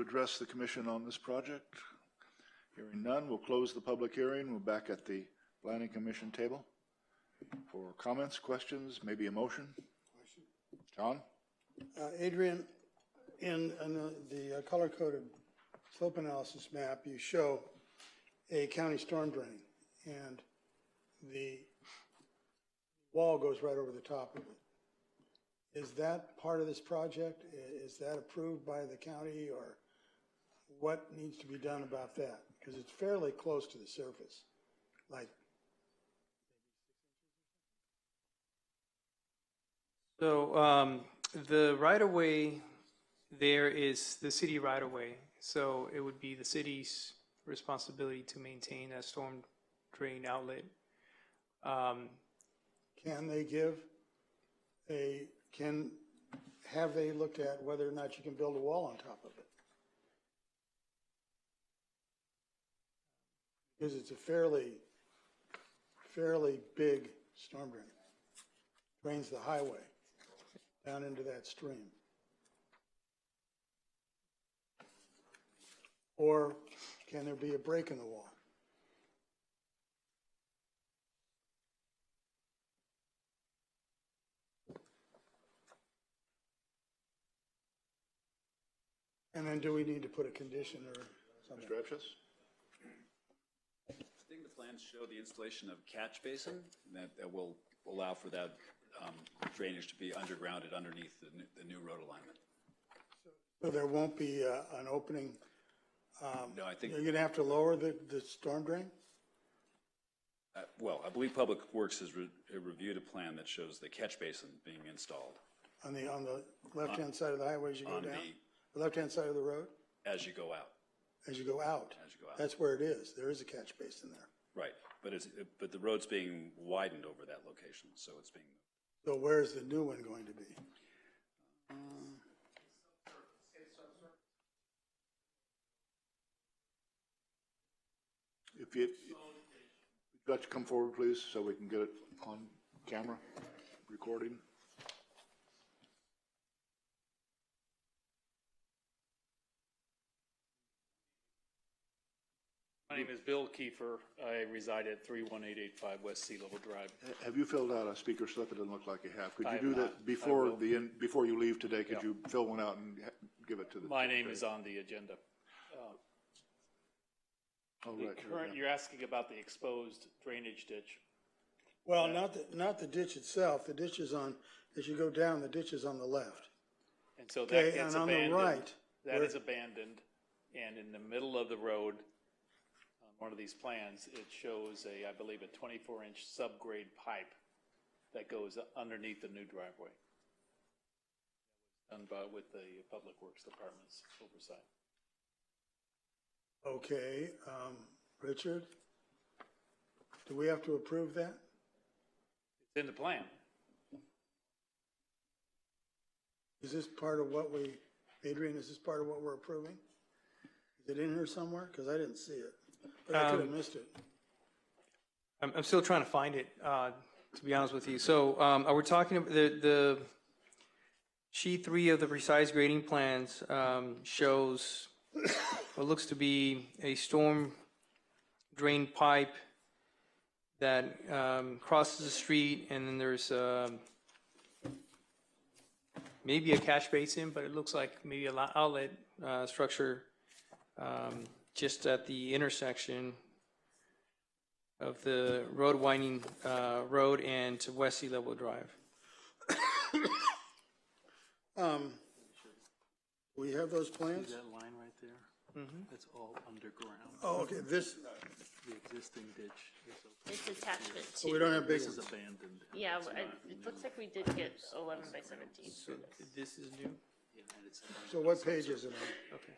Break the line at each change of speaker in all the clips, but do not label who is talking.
address the commission on this project? Hearing none, we'll close the public hearing. We're back at the planning commission table for comments, questions, maybe a motion. John?
Uh, Adrian, in, in the- the uh, color-coded slope analysis map, you show a county storm drain, and the wall goes right over the top of it. Is that part of this project? I- Is that approved by the county, or what needs to be done about that? Because it's fairly close to the surface, like,
So um, the right-of-way there is the city right-of-way. So it would be the city's responsibility to maintain that storm drain outlet. Um,
can they give a, can, have they looked at whether or not you can build a wall on top of it? Because it's a fairly, fairly big storm drain. Drains the highway down into that stream. Or can there be a break in the wall? And then do we need to put a condition or something?
Mr. Abscess?
I think the plans show the installation of catch basin that that will allow for that um, drainage to be undergrounded underneath the new- the new road alignment.
So there won't be uh, an opening, Um,
No, I think,
you're gonna have to lower the, the storm drain?
uh, well, I believe Public Works has re- reviewed a plan that shows the catch basin being installed
On the, on the left-hand side of the highway as you go
Uh, on
down?
the,
The left-hand side of the road,
as you go out,
as you go out?
as you go out.
That's where it is, there is a catch basin there.
Right, but it's, but the road's being widened over that location, so it's being,
So where is the new one going to be?
If you, if you'd like to come forward, please, so we can get it on camera, recording.
My name is Bill Kiefer. I reside at 31885 West Sea Level Drive.
Ha- Have you filled out a speaker slip? It doesn't look like you have. Could
I
you
have
do
not. I
that before
will.
the, end- bbefore you leave today? Could
Yeah.
you fill one out and ha- give it to the?
My name is on the agenda. Uh,
Oh,
The
right, here,
current,
yeah.
you're asking about the exposed drainage ditch.
Well, not the, not the ditch itself, the ditch is on, as you go down, the ditch is on the left.
And so that
Okay,
gets
and on the
abandoned.
right,
That
where-
is abandoned. And in the middle of the road, on one of these plans, it shows a, I believe, a 24-inch subgrade pipe that goes underneath the new driveway. Done by, with the Public Works Department's oversight.
okay, um, Richard? Do we have to approve that?
It's in the plan.
Is this part of what we, Adrian, is this part of what we're approving? Is it in here somewhere? Because I didn't see it, but I could have
Um,
missed it.
I'm, I'm still trying to find it, uh, to be honest with you. So, um, are we talking, ab- the, the, sheet three of the precise grading plans, um, shows what looks to be a storm drain pipe that, um, crosses the street, and then there's, um, maybe a catch basin, but it looks like maybe a lo- outlet, uh, structure, um, just at the intersection of the road winding uh, road and to West Sea Level Drive.
Um, we have those plans?
That line right there?
Mm-hmm.
That's all underground.
Oh, okay, this,
The existing ditch is open.
It's attachment
oh, we
two.
don't have big
This is
ones.
abandoned.
Yeah, w- I- it looks like we did get eleven by seventeen for this.
This is new?
and it's-
So what page is it on?
Okay.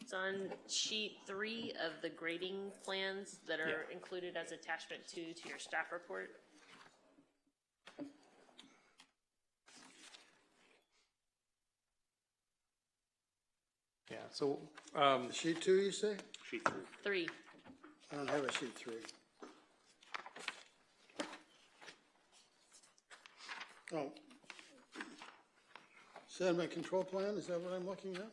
It's on sheet three of the grading plans that are included as attachment two to your staff report.
Yeah, so, um,
Sheet two, you say?
Three,
I don't have a sheet three. Oh. Sediment control plan, is that what I'm looking at?